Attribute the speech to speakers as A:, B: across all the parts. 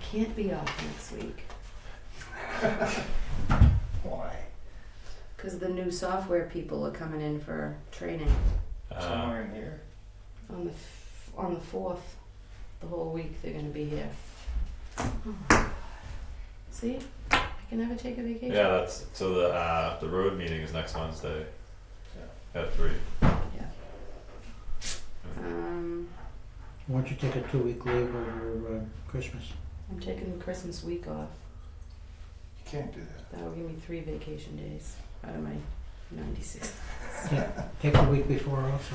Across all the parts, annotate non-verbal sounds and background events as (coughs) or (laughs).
A: can't be off next week
B: Why?
A: because the new software people are coming in for training
C: Uh,
B: Somewhere in here.
A: on the f- on the fourth. The whole week they're gonna be here. Oh my God. See, I can never take a vacation.
C: yeah, that's so the uh, the road meeting is next Wednesday at three.
A: Um,
D: Why don't you take a two-week leave over uh, Christmas?
A: I'm taking the Christmas week off.
B: You can't do that.
A: That will give me three vacation days out of my 96.
D: (laughs) Take the week before also.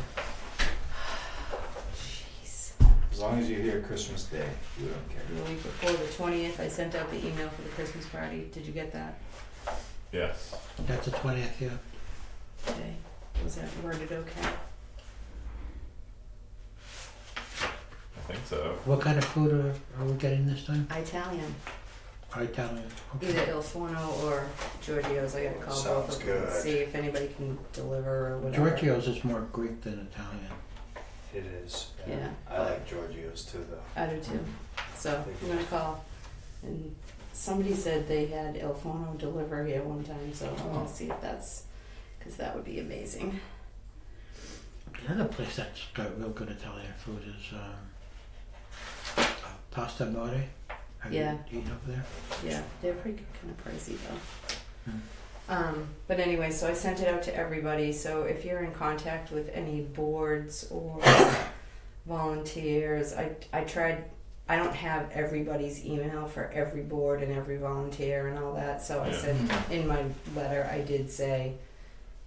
A: Jeez.
B: As long as you're here Christmas Day, we don't care.
A: The week before the 20th, I sent out the email for the Christmas party. Did you get that?
C: Yes.
D: That's the twentieth, yeah.
A: Okay. Was that worded okay?
C: I think so.
D: What kind of food are, are we getting this time?
A: Italian.
D: Italian.
A: Either
D: Okay.
A: Il Forno or Giorgio's. I gotta call both
B: Sounds
A: of them and
B: good.
A: see if anybody can deliver or whatever.
D: Giorgio's is more Greek than Italian.
B: It is.
A: Yeah.
B: I like Giorgio's too, though.
A: I do too. So I'm gonna call. And somebody said they had Il Forno deliver here one time, so I
B: Oh.
A: wanna see if that's, cause that would be amazing.
D: The other place that's got real good Italian food is um, uh, Pasta Mori. Have
A: Yeah.
D: you eaten over there?
A: Yeah, they're pretty kind of pricey though.
D: Hmm.
A: Um, but anyway, so I sent it out to everybody, so if you're in contact with any boards or (coughs) volunteers, I, I tried, I don't have everybody's email for every board and every volunteer and all that, so I
C: Yeah.
A: said, in my letter, I did say,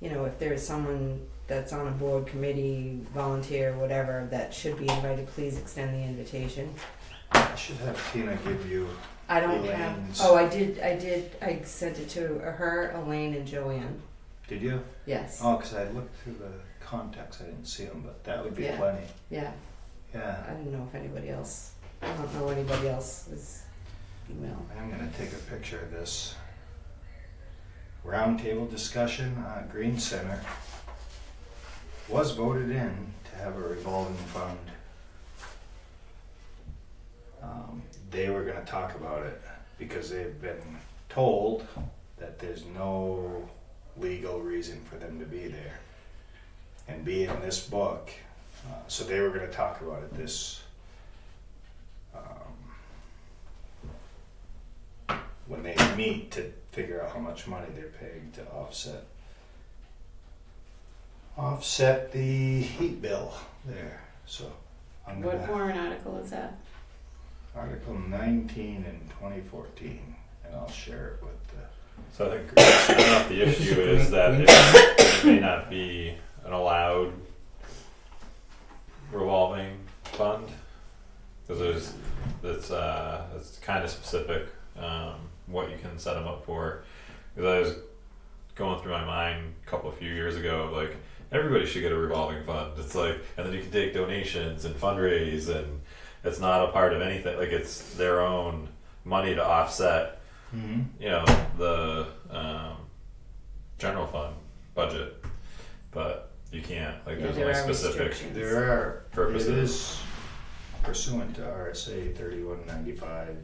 A: you know, if there's someone that's on a board committee, volunteer, whatever, that should be invited, please extend the invitation.
B: I should have Tina give you.
A: I don't have,
B: Elaine's.
A: oh, I did, I did, I sent it to her, Elaine and Joanne,
B: Did you?
A: yes,
B: Oh, 'cause I looked through the contacts. I didn't see them, but that would be
A: Yeah.
B: plenty.
A: yeah,
B: Yeah.
A: I don't know if anybody else, I don't know anybody else's email.
B: I'm gonna take a picture of this. Roundtable discussion on Green Center was voted in to have a revolving fund. Um, they were gonna talk about it because they've been told that there's no legal reason for them to be there and be in this book. Uh, so they were gonna talk about it this, um, when they meet to figure out how much money they're paying to offset offset the heat bill there. So I'm
A: What
B: gonna
A: warrant article is that?
B: Article nineteen and twenty fourteen, and I'll share it with the
C: So I think (coughs) I think the
D: This is
C: issue
D: a
C: is
D: Greek-
C: that
D: Greek
C: it, it may not be an allowed revolving fund because there's that's uh it's kind of specific um, what you can set them up for. Because I was going through my mind a couple of few years ago, like everybody should get a revolving fund. It's like, and then you can take donations and fundraise, and it's not a part of anything. Like it's their own money to offset
B: mm
C: you know the um, general fund budget, but you can't like
A: Yeah,
C: there's
A: there
C: only
A: are
C: specific
A: restrictions.
B: There are
C: purposes.
B: It is pursuant to RSA thirty-one ninety-five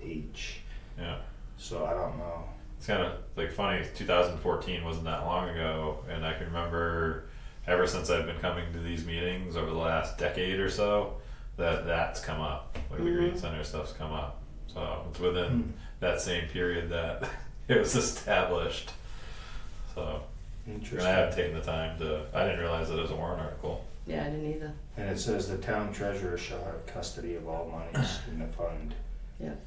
B: H.
C: Yeah,
B: So I don't know.
C: it's kind of like funny. 2014 wasn't that long ago, and I can remember ever since I've been coming to these meetings over the last decade or so that that's come up. Like the Green
A: Mhm.
C: Center stuff's come up, so it's within
B: Hmm.
C: that same period that (laughs) it was established. So and I have
B: Hmm, Interesting.
C: taken the time to. I didn't realize that it was a warrant article.
A: Yeah, I didn't either,
B: And it says the town treasurer shall have custody of all monies in the fund.
A: Yep.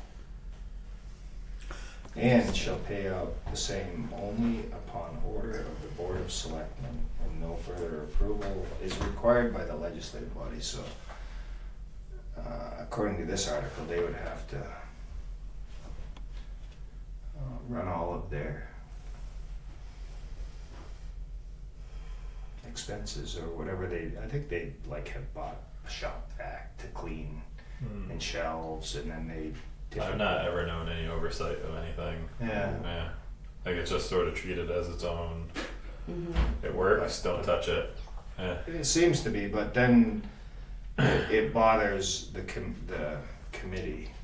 B: And shall pay out the same only upon order of the Board of Selectmen, and no further approval is required by the legislative body, so. Uh, according to this article, they would have to. Uh, run all of their. Expenses or whatever they, I think they like have bought a shop vac to clean
C: Hmm.
B: and shelves, and then they.
C: I've Uh, not ever known any oversight of anything.
B: Yeah.
C: Yeah. Like it's just sort of treated as its own.
A: hmm
C: It works. Don't touch it. Yeah.
B: It seems to be, but then it bothers the com- the committee